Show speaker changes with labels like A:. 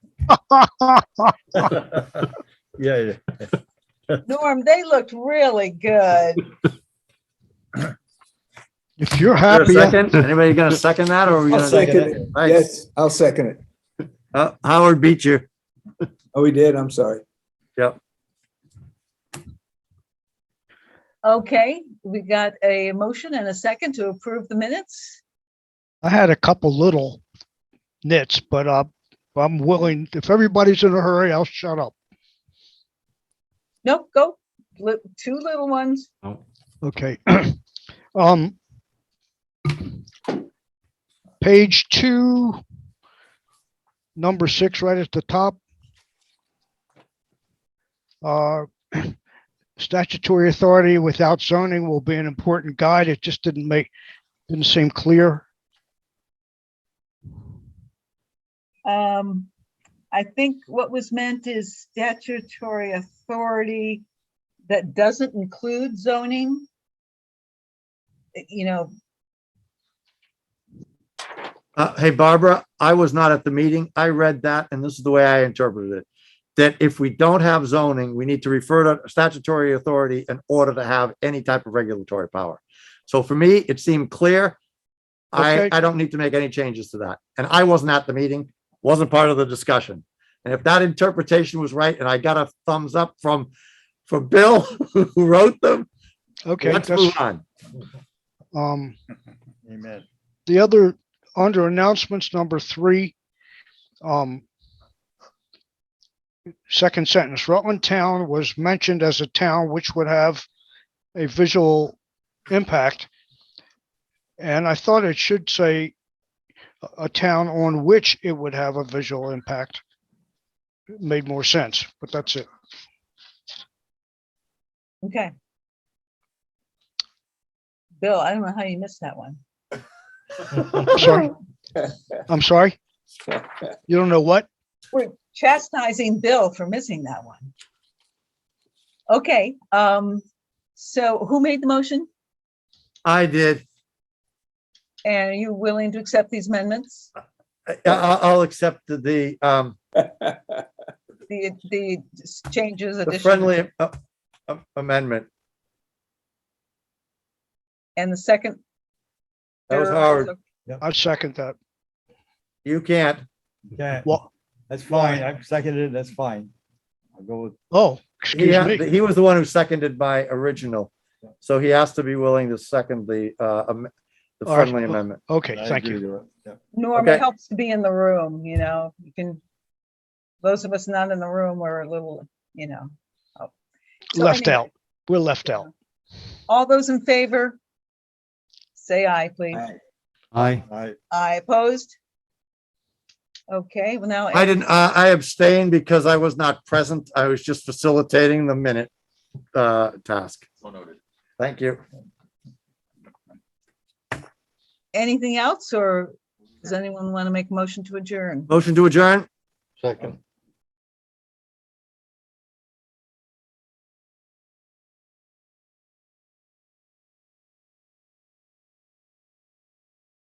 A: Yeah, yeah.
B: Norm, they looked really good.
A: If you're
C: Is there a
A: happy,
C: Second, anybody gonna second that or? are we
D: I'll
C: gonna take
D: second it.
C: Nice.
D: Yes, I'll second it.
C: Uh, Howard beat you.
D: Oh, we did. I'm sorry.
B: Okay, we got a motion and a second to approve the minutes.
A: I had a couple little nits, but uh, I'm willing, if everybody's in a hurry, I'll shut up.
B: Nope, go, Li- two little ones.
A: Okay. Um, page two, number six, right at the top. Uh, statutory authority without zoning will be an important guide. It just didn't make, didn't seem clear.
B: Um, I think what was meant is statutory authority that doesn't include zoning. Uh, You know,
C: Uh, hey Barbara, I was not at the meeting. I read that and this is the way I interpreted it. That if we don't have zoning, we need to refer to statutory authority in order to have any type of regulatory power. So for me, it seemed clear. I,
A: Okay.
C: I don't need to make any changes to that. And I wasn't at the meeting, wasn't part of the discussion. And if that interpretation was right, and I got a thumbs up from, from Bill, who wrote them,
A: Okay,
C: let's
A: that's,
C: move on.
A: um,
C: Amen.
A: the other, under announcements, number three, um, second sentence, Rutland Town was mentioned as a town which would have a visual impact. And I thought it should say a- a town on which it would have a visual impact. It Made more sense, but that's it.
B: okay. Bill, I don't know how you missed that one.
A: Sorry. I'm sorry? You don't know what?
B: We're chastising Bill for missing that one. Okay, um, so who made the motion?
C: I did.
B: And are you willing to accept these amendments?
C: I, I- I'll accept the- the, um,
B: The, the changes,
C: the
B: additions,
C: friendly uh, uh, amendment.
B: and the second?
C: That was
B: They're
C: Howard.
B: also-
A: I second that.
C: You can't.
E: Okay,
A: What?
E: that's fine. I've seconded it. That's fine. I'll go with,
A: Oh,
C: He,
A: excuse
C: had-
A: me.
C: he was the one who seconded my original. So he has to be willing to second the, uh, am- the
A: All right.
C: friendly amendment.
A: Okay,
E: I
A: thank you.
E: agree with it.
B: Norm,
C: Okay.
B: it helps to be in the room, you know, you can, those of us not in the room are a little, you know. oh. So
A: Left
B: anyway,
A: out. We're left out.
B: All those in favor? Say aye, please.
D: Aye.
C: I,
E: Yeah. I,
B: Aye opposed? Okay, well now.
C: I didn't, uh, I abstained because I was not present. I was just facilitating the minute, uh, task. Thank you.
B: anything else or does anyone want to make a motion to adjourn?
C: Motion to adjourn?
A: Second.